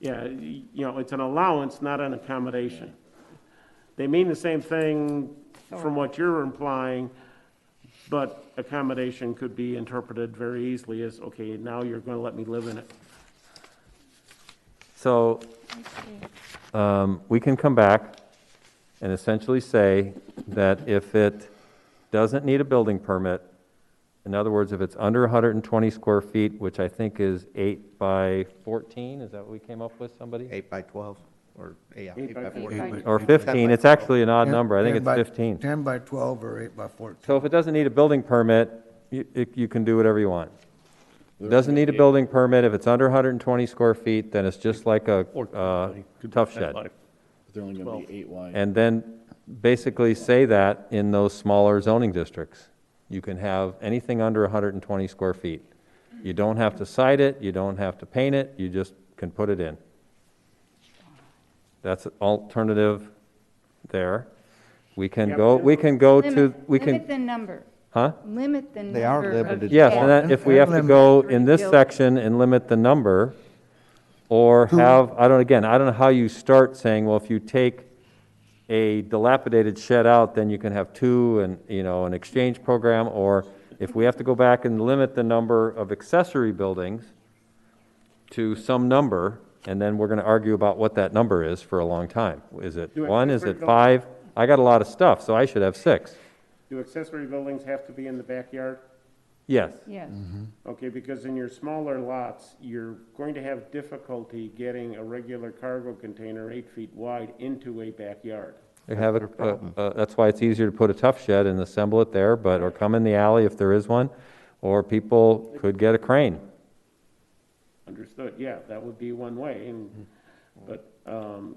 Yeah, you know, it's an allowance, not an accommodation. They mean the same thing from what you're implying, but accommodation could be interpreted very easily as, okay, now you're gonna let me live in it. So um, we can come back and essentially say that if it doesn't need a building permit, in other words, if it's under 120 square feet, which I think is 8 by 14, is that what we came up with, somebody? Eight by 12, or, yeah, Eight eight by by four. 14. Eight by- Or 15, it's actually an odd number, I think 10 it's by- 15. 10 by 12 or 8 by 14. So if it doesn't need a building permit, you, it- you can do whatever you want. It Doesn't need a building permit, if it's under 120 square feet, then it's just like a uh, tough shed. But they're only gonna be eight wide. And then basically say that in those smaller zoning districts. You can have anything under 120 square feet. You don't have to cite it, you don't have to paint it, you just can put it in. That's an alternative there. We can Yeah, go, we can go to, Limit- we can, Limit the number, huh? limit the number. They are of- limited. Yes, and that, if we have to go in this section and limit the number, or have, I don't, again, I don't know how you start saying, well, if you take a dilapidated shed out, then you can have two and, you know, an exchange program, or if we have to go back and limit the number of accessory buildings to some number, and then we're gonna argue about what that number is for a long time. Is it Do it. one, is it five? I got a lot of stuff, so I should have six. Do accessory buildings have to be in the backyard? Yes. Yes, Mm-hmm. Okay, because in your smaller lots, you're going to have difficulty getting a regular cargo container eight feet wide into a backyard. They have a- a, a- that's why it's easier to put a tough shed and assemble it there, but, or come in the alley if there is one, or people could get a crane. Understood, yeah, that would be one way, and, but, um,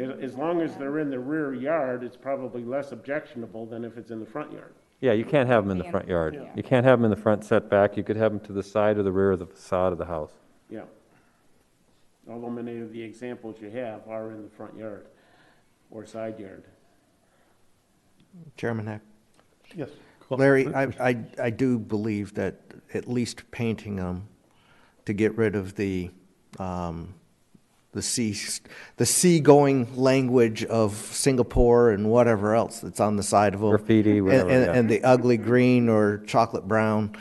a- as long as they're in the rear yard, it's probably less objectionable than if it's in the front yard. Yeah, you can't have them in the front yard. You can't have them in the front setback, you could have them to the side or the rear of the facade of the house. Yeah. Although many of the examples you have are in the front yard or side yard. Chairman Heck? Yes. Larry, I, I, I do believe that at least painting them to get rid of the, um, the sea, the seagoing language of Singapore and whatever else that's on the side of them. Graffiti, And- whatever, and- yeah. And the ugly green or chocolate brown,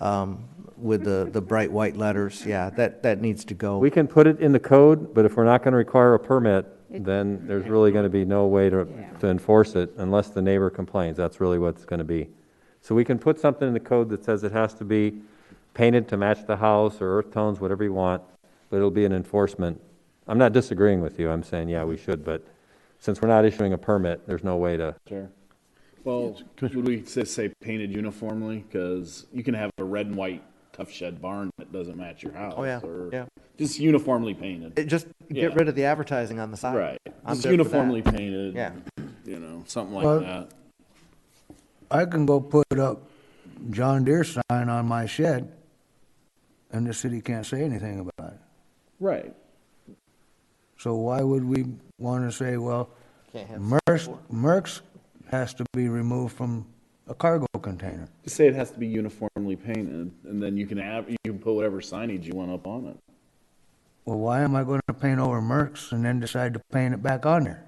um, with the, the bright white letters, yeah, that, that needs to go. We can put it in the code, but if we're not gonna require a permit, then there's really gonna be no way to, to enforce it unless the neighbor complains, that's really what it's gonna be. So we can put something in the code that says it has to be painted to match the house or earth tones, whatever you want, but it'll be an enforcement. I'm not disagreeing with you, I'm saying, yeah, we should, but since we're not issuing a permit, there's no way to, Sure. Well, would we just say painted uniformly? Because you can have a red and white tough shed barn that doesn't match your house. Oh, yeah, or yeah. Just uniformly painted. It Just Yeah. get rid of the advertising on the side. Right. I'm Just good for that. uniformly painted. Yeah. You know, something like Well- that. I can go put up John Deere sign on my shed, and the city can't say anything about it. Right. So why would we want to say, well, Can't have Merck's, Merck's has to be removed from a cargo container? Just say it has to be uniformly painted and then you can have, you can put whatever signage you want up on it. Well, why am I going to paint over Merck's and then decide to paint it back on there?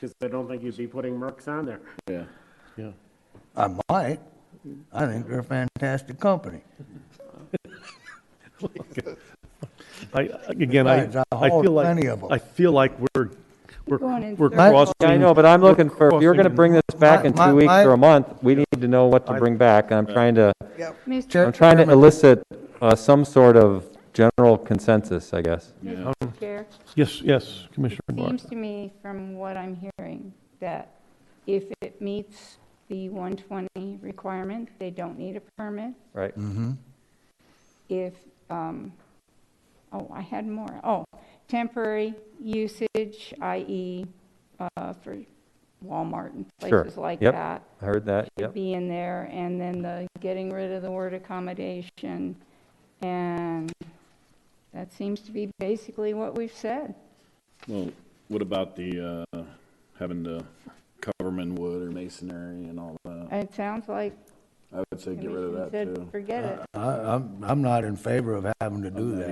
Because I don't think you'd be putting Mercs on there. Yeah. I might. I think they're a fantastic company. I, again, I, Besides, I I feel hauled like. plenty of 'em. I feel like we're, Going we're, in we're circles. crossing. Yeah, I know, but I'm looking for, if you're gonna bring this back in My- two my- weeks my- or a month, we need to know what to bring back, and I'm trying to, Mr. I'm trying to elicit uh, some sort of general consensus, I guess. Mr. Chair, Yes, yes, Commissioner Barr. seems to me from what I'm hearing, that if it meets the 120 requirement, they don't need a permit. Right. If, um, oh, I had more, oh, temporary usage, i.e., uh, for Walmart and Sure. places like Yep. that. I heard that, yep. be in there, and then the getting rid of the word accommodation, and that seems to be basically what we've said. Well, what about the, uh, having to cover 'em in wood or masonry and all that? It sounds like I would say get rid of Commission that said, too. forget it. I, I'm, I'm not in favor of having to do that.